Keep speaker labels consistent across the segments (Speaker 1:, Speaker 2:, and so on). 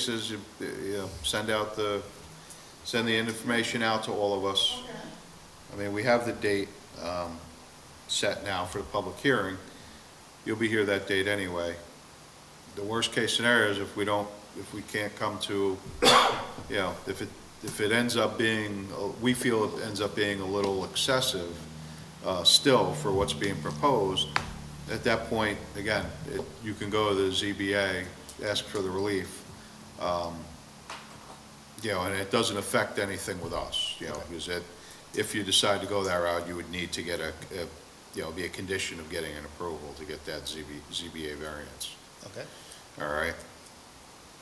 Speaker 1: cases, you- you send out the, send the information out to all of us. I mean, we have the date um, set now for the public hearing. You'll be here that date anyway. The worst-case scenario is if we don't, if we can't come to, you know, if it, if it ends up being, uh, we feel it ends up being a little excessive uh, still for what's being proposed, at that point, again, it- you can go to the ZBA, ask for the relief. Um, You know, and it doesn't affect anything with us, you know, because it, if you decide to go that route, you would need to get a, a- you know, be a condition of getting an approval to get that ZB, ZBA variance,
Speaker 2: Okay,
Speaker 1: all right?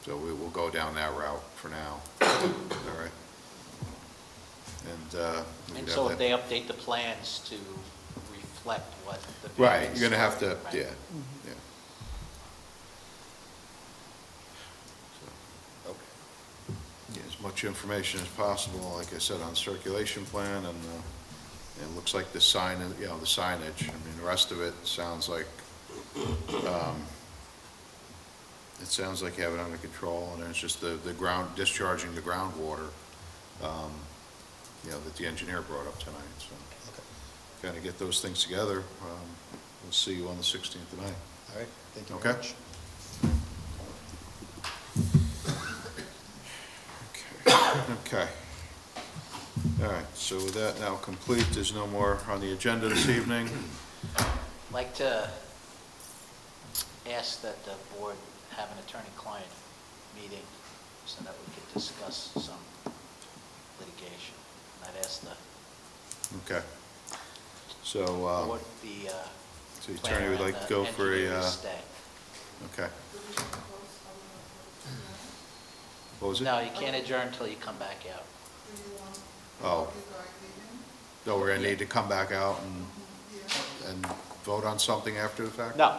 Speaker 1: So we will go down that route for now, all right? And, uh. we
Speaker 3: And
Speaker 1: could have
Speaker 3: so
Speaker 1: that-
Speaker 3: if they update the plans to reflect what the.
Speaker 1: Right,
Speaker 3: variance-
Speaker 1: you're gonna have to,
Speaker 3: Right.
Speaker 1: yeah, yeah.
Speaker 2: okay.
Speaker 1: Yeah, as much information as possible, like I said, on circulation plan, and, uh, it looks like the sign, you know, the signage, I mean, the rest of it sounds like, um, it sounds like you have it under control, and it's just the, the ground, discharging the groundwater, um, you know, that the engineer brought up tonight, so.
Speaker 2: Okay.
Speaker 1: Kind of get those things together, um, we'll see you on the sixteenth of May.
Speaker 2: All right, thank you
Speaker 1: Okay.
Speaker 2: very much.
Speaker 1: Okay. All right, so with that now complete, there's no more on the agenda this evening.
Speaker 3: I'd Like to ask that the board have an attorney-client meeting so that we could discuss some litigation. And I'd ask the,
Speaker 1: Okay. So, um,
Speaker 3: what the. uh,
Speaker 1: so the
Speaker 3: planner
Speaker 1: attorney would
Speaker 3: and
Speaker 1: like to
Speaker 3: the
Speaker 1: go for a,
Speaker 3: engineer to
Speaker 1: uh,
Speaker 3: stay.
Speaker 1: okay. What was it?
Speaker 3: No, you can't adjourn until you come back out.
Speaker 1: Oh. No, we're gonna need to come back out and, and vote on something after the fact?
Speaker 3: No,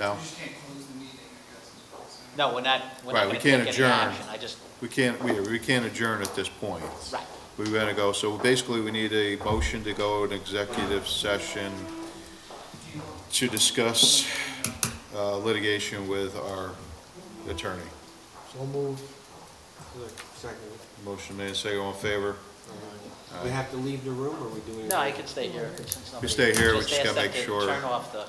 Speaker 1: No?
Speaker 4: You just can't close the meeting, I guess, is what it's saying.
Speaker 3: no, we're not, we're not
Speaker 1: Right, we
Speaker 3: going to
Speaker 1: can't
Speaker 3: take any
Speaker 1: adjourn.
Speaker 3: action. I just,
Speaker 1: We can't, we, we can't adjourn at this point.
Speaker 3: right,
Speaker 1: We're gonna go, so basically we need a motion to go in executive session to discuss uh, litigation with our attorney.
Speaker 5: So moved. Second.
Speaker 1: Motion made, second, all in favor?
Speaker 5: We have to leave the room, or we do it?
Speaker 3: no, I could stay here since nobody.
Speaker 1: stay here, we just
Speaker 3: ask
Speaker 1: gotta
Speaker 3: them
Speaker 1: make
Speaker 3: to
Speaker 1: sure-
Speaker 3: Turn off the.